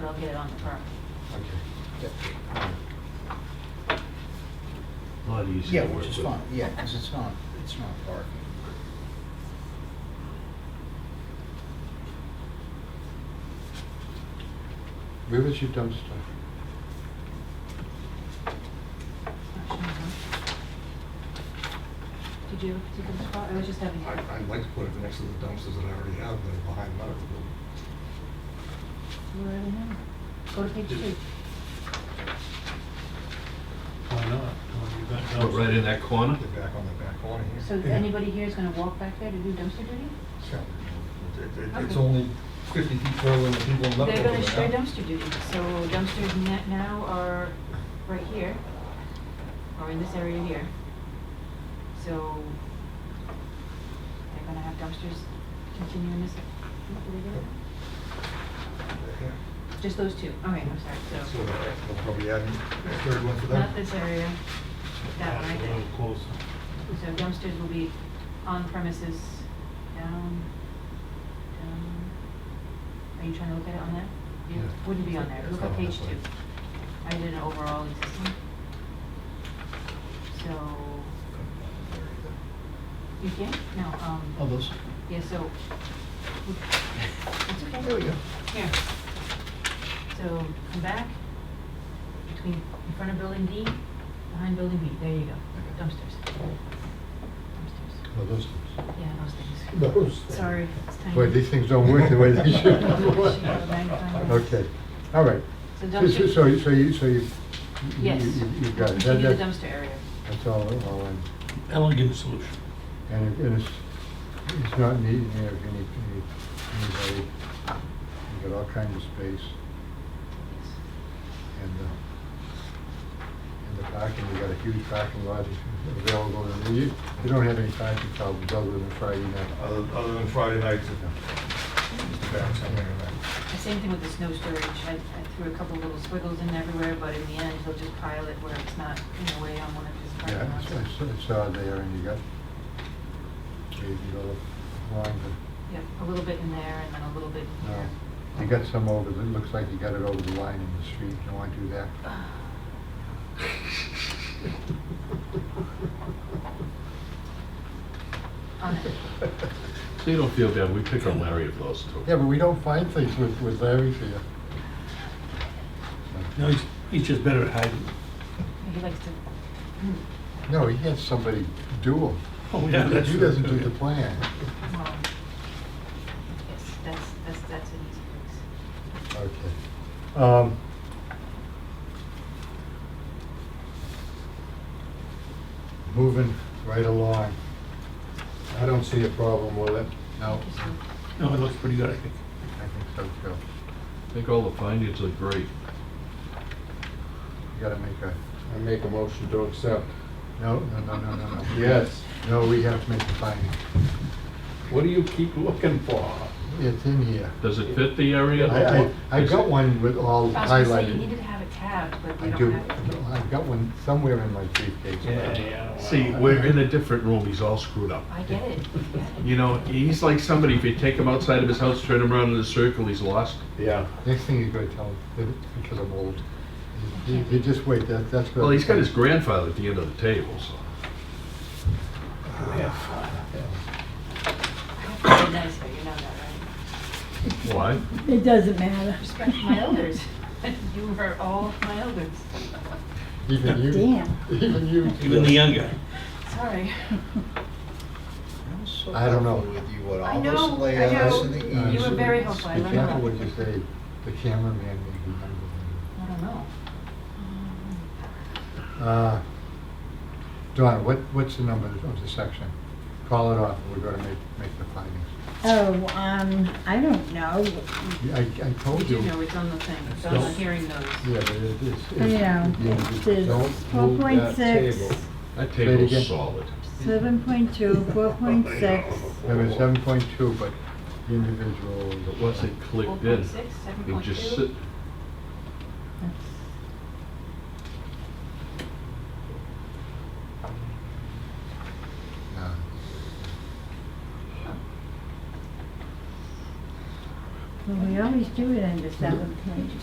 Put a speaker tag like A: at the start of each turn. A: they'll get it on the permit.
B: Okay.
C: Lot easier
B: Yeah,
C: to work
B: which
C: with.
B: is fine, yeah, because it's not, it's not parking.
D: Where was your dumpster?
A: Did you, did you respond? I was just having.
E: I- I'd like to put it next to the dumpsters that I already have that are behind medical building.
A: You already know. Go to page two.
F: Why not? Well, you got
C: Put right in that corner?
E: Get back on the back corner here.
A: So anybody here is gonna walk back there to do dumpster duty?
E: Yeah. It- it- It's
A: Okay.
E: only 50 feet further than the people in medical.
A: They're gonna
E: building
A: share
E: now.
A: dumpster duty, so dumpsters na- now are right here, or in this area here. So they're gonna have dumpsters continue in this, what do they do?
E: Yeah.
A: Just those two, all right, I'm sorry,
E: So
A: so,
E: they'll probably add a third one for them.
A: not this area, that one, I
F: A
A: think.
F: little closer.
A: So dumpsters will be on premises, down, down. Are you trying to look at it on that? It
E: Yeah.
A: Wouldn't be on there, look at
E: Oh, that's
A: page two. I did an overall existing. So, you can, no,
B: Oh,
A: um,
B: those,
A: yeah, so. It's
B: Oh,
A: okay.
E: There we go.
A: Here. So come back, between, in front of building D, behind building B, there you go, dumpsters. Dumpsters,
D: Oh, those things.
A: yeah, those things.
D: Those things.
A: Sorry, it's tiny.
D: Boy, uh, these things don't work the way they should. Okay, all right.
A: So
D: So, so,
A: dumpster,
D: so you, so you, so you-
A: yes.
D: you- you- you've got it. That-
A: Continue the
D: that-
A: dumpster area.
D: That's all, all I'm,
F: Elegant solution.
D: and it- and it's, it's not needed here if you need, need anybody. You've got all kinds of space and, uh, and the parking, you got a huge parking lot available. And you, you don't have any parking problems other than Friday night.
E: Other other than Friday nights, it's the back somewhere in there.
A: The same thing with the snow storage, I, I threw a couple little squiggles in everywhere, but in the end, he'll just pile it where it's not in the way on one of his parking
D: Yeah,
A: lots.
D: it's, it's, it's all there and you got, you go along
A: Yep, a little bit in there and then a little bit
D: the,
A: here.
D: no. You got some over, the- it looks like you got it over the line in the street, you don't want to do that.
A: Uh, On it.
C: So you don't feel bad, we pick on Larry of those two.
D: Yeah, but we don't find things with, with Larry's here.
F: No, he's, he's just better at hiding.
A: He likes to, hmm,
D: No, he has somebody do them.
F: Oh,
D: He doesn't do the plan.
A: well, um, yes, that's, that's, that's an easy fix.
D: Okay. Um, Moving right along. I don't see a problem with it. No,
A: Thank you, sir.
F: No, it looks pretty good, I think.
D: I think so too.
C: I think all the findings are great.
D: You gotta make a,
G: I make a motion to accept.
D: no, no, no, no, no, no.
G: Yes.
D: No, we have to make a finding.
G: What do you keep looking for?
D: It's in here.
C: Does it fit the area?
D: I, I, I got one with all
A: I was gonna say, you
D: highlighted.
A: needed to have it tabbed, but
D: I
A: we
D: do,
A: don't have it.
D: I've got one somewhere in my briefcase.
F: yeah.
C: See, we're in a different room, he's all screwed up.
A: I get it, I get it.
C: You know, he's like somebody, if you take him outside of his house, turn him around in a circle, he's lost.
G: Yeah.
D: Next thing he's gonna tell me, that- because I'm old. You, you just wait, that, that's. what-
C: Well, he's got his grandfather at the end of the table, so.
A: I have to be nice, but you know that, right?
C: Why?
H: It doesn't matter.
A: Respect my elders. You are all my elders.
D: Even you.
H: Damn.
D: Even you.
F: Even the younger.
A: Sorry.
B: I'm so
D: I don't know.
B: helpful with you with
A: I
B: all
A: know,
B: this
A: I
B: layouts
A: know.
B: and the
A: Oh, You were
B: easements.
A: very helpful, I
D: uh, Be
A: learned a
D: careful
A: lot.
D: what you say, the cameraman may be younger than
A: I don't know.
D: you. Uh, Donna, what, what's the number of the section? Call it off, we're gonna make, make the findings.
H: Oh, um, I don't know.
D: Yeah, I, I
A: We
D: told you.
A: do Mm. know Oh,
D: Yeah,
A: it's on the thing, it's on the hearing notice.
D: but it is. it's-
H: I know.
D: yeah,
H: It's
D: you don't-
H: four point six,
G: table.
C: That
D: Say it again.
C: table's solid.
H: seven point two, four point six.
D: There was seven point two, but the individual.
C: But once it
A: Four
C: clicked in,
A: point six, seven
C: it
A: point
C: just sit,
A: two?
D: No.
H: Well, we always do it under seven point two.